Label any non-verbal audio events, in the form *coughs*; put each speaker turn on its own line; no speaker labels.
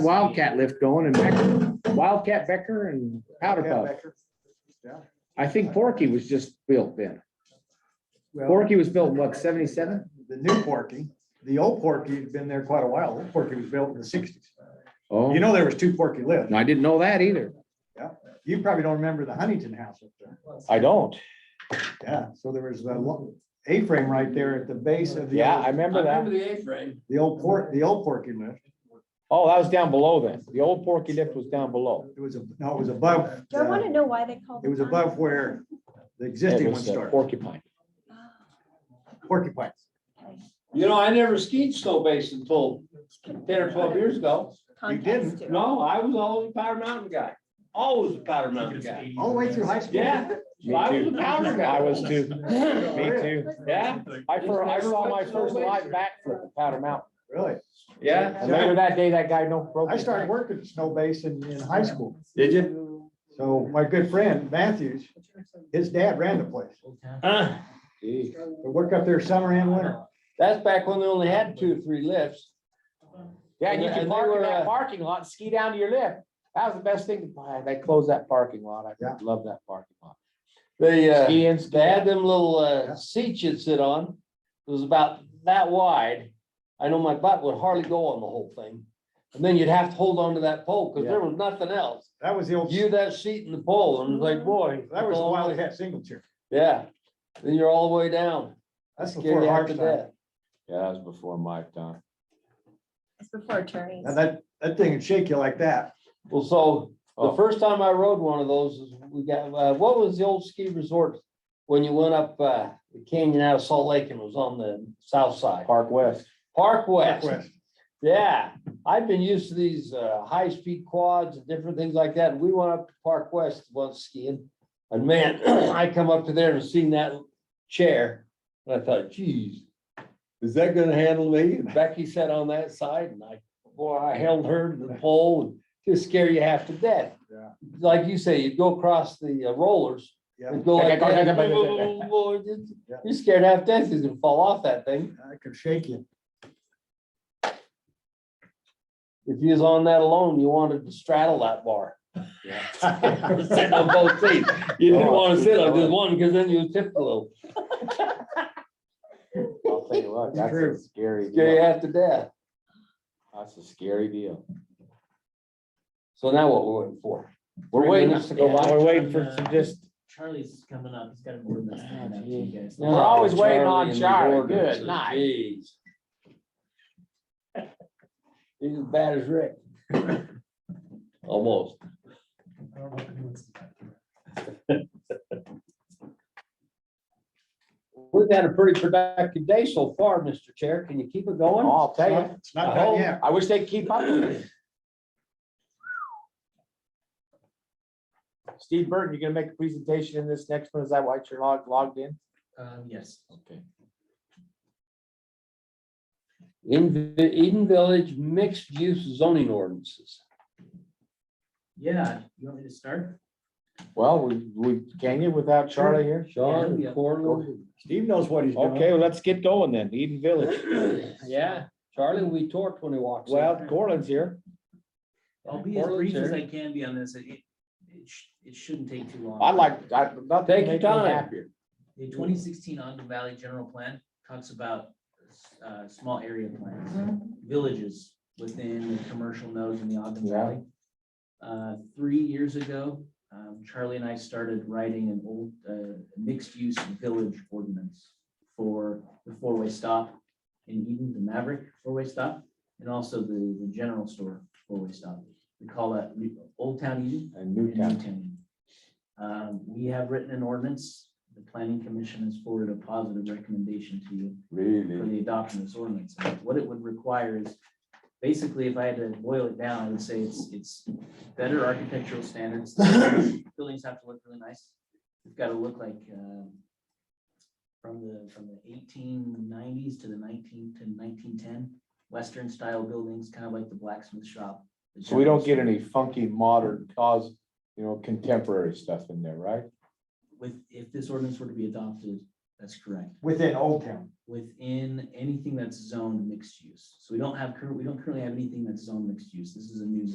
Wildcat lift going and Becker- Wildcat Becker and Powder Puff. I think Porky was just built then.
Well,
Porky was built, what, seventy-seven?
the new Porky, the old Porky had been there quite a while. Old Porky was built in the sixties.
Oh,
You know, there was two Porky lifts.
I didn't know that either.
You probably don't remember the Huntington House up there.
I don't.
Yeah, so there was a lo- A-frame right there at the base of the. old-
remember
the A-frame.
The old Port, the old Porky lift.
Oh, that was down below then. The old Porky lift was down below.
It was, a no, it was above,
Do I want
the-
to know why they called
it
it?
was
that?
above where the
It
existing one
was uh,
started.
Porcupine.
Oh,
Porcupine.
You know, I never skied snow base until ten or twelve years ago.
Context
didn't.
to it.
No, I was always a Powder Mountain guy, always a Powder Mountain guy.
All the way through high school.
Yeah,
Me
I was a
too.
Powder guy.
I was too.
*laughs*
Me too.
Yeah,
I first, I saw my first live backflip at Powder Mountain.
Really?
yeah.
And later that day, that guy no broke.
I
his
started
back.
working at Snow Basin in high school.
Did you?
So my good friend Matthews, his dad ran the place.
Gee.
I worked up there summer and winter.
That's back when they only had two or three lifts.
Yeah, and you can
And they
park in
were,
that
uh,
parking lot, and ski down to your lift. That was the best thing. Wow, They closed that parking lot. I
Yeah.
love that parking lot.
They, uh,
Ski in, ski
they had them little,
Yeah.
uh, seats you'd sit on. It was about that wide. I know my butt would hardly go on the whole thing. And then you'd have to hold on to that pole because there was nothing else.
That was the old,
You that seat in the pole and it's like, boy.
that was the Wildcat single chair.
Yeah, then you're all the way down.
That's
Scared
before
you
our
half to
time.
death.
Yeah, that was before my time.
It's before attorneys.
Now that, that thing would shake you like that.
Well, so the
Oh.
first time I rode one of those is we got, uh, what was the old ski resort? When you went up, uh, the canyon out of Salt Lake and it was on the south side,
Park West.
Park West.
Northwest.
Yeah, I've been used to these uh high-speed quads and different things like that. We went up to Park West once skiing. And man, *clears throat* I come up to there and seen that chair. And I thought, geez, is that gonna handle me? And Becky sat on that side and I, boy, I held her to the pole and just scare you half to death.
Yeah.
Like you say, you go across the uh, rollers
Yeah,
and go like that. You're scared half to death, you're gonna fall off that thing.
I could shake *laughs* you.
If you was on that alone, you wanted to straddle that *laughs* bar. Sitting on both seats. You didn't want to sit on just one because then you tip a little.
I'll tell you what, that's
True.
a scary
Scare you
deal.
half to death.
That's a scary deal.
So now what we're waiting for?
We're
Three
waiting,
minutes to go by.
we're waiting for some just,
Charlie's coming up, he's got a board that's coming up to you guys.
We're always waiting on
and
Charlie.
Gordon.
Good night.
Jeez. He's as bad as Rick. Almost.
I don't know if anyone's-
We've had a pretty productive day so far, Mr. Chair. Can you keep it going?
oh, I'll tell you.
It's not done yet.
I wish they'd keep up. with it. Steve Burton, you're gonna make a presentation in this next one? Is that why you're logged, logged in?
Um, yes.
Okay.
In Vi- Eden Village mixed use zoning ordinances.
Yeah, you want me to start?
Well, we, we, can you without Charlie here?
Sean
Yeah.
and Corlon.
Steve knows what he's doing.
Okay, well, let's get going then. Eden Village.
*clears throat* Yeah, Charlie, we torqued when he walks. in.
Well, Corlin's here.
I'll be as
Portland's
brief as
here.
I can be on this. It, it- it sh- it shouldn't take too long.
I like, I, nothing
Take your
makes me
time.
happier.
The twenty sixteen Ogden Valley General Plan talks about uh, small area
Mm-hmm.
plans, villages within the commercial nodes in the Ogden
Yeah.
Valley. Uh, Three years ago, um, Charlie and I started writing an old uh, mixed-use village ordinance for the four-way stop in Eden, the Maverick four-way stop, and also the, the general store four-way stop. We call that Re- Old Town Eden,
And
in
Newtown.
Newtown. Um, we have written an ordinance, the planning commission has forwarded a positive recommendation to you for
Really?
the adoption of this ordinance. And What it would require is, basically, if I had to boil it down, I would say it's, it's better
*coughs*
architectural standards. Buildings have to look really nice. It's gotta look like, um, from the, from the eighteen nineties to the nineteen, to nineteen ten, western style buildings, kind of like the blacksmith shop. the
So we don't
general
get
store.
any funky modern cause, you know, contemporary stuff in there, right?
with, if this ordinance were to be adopted, That's correct.
within Old Town.
Within anything that's zoned mixed use. So we don't have current, we don't currently have anything that's zoned mixed use. This is a new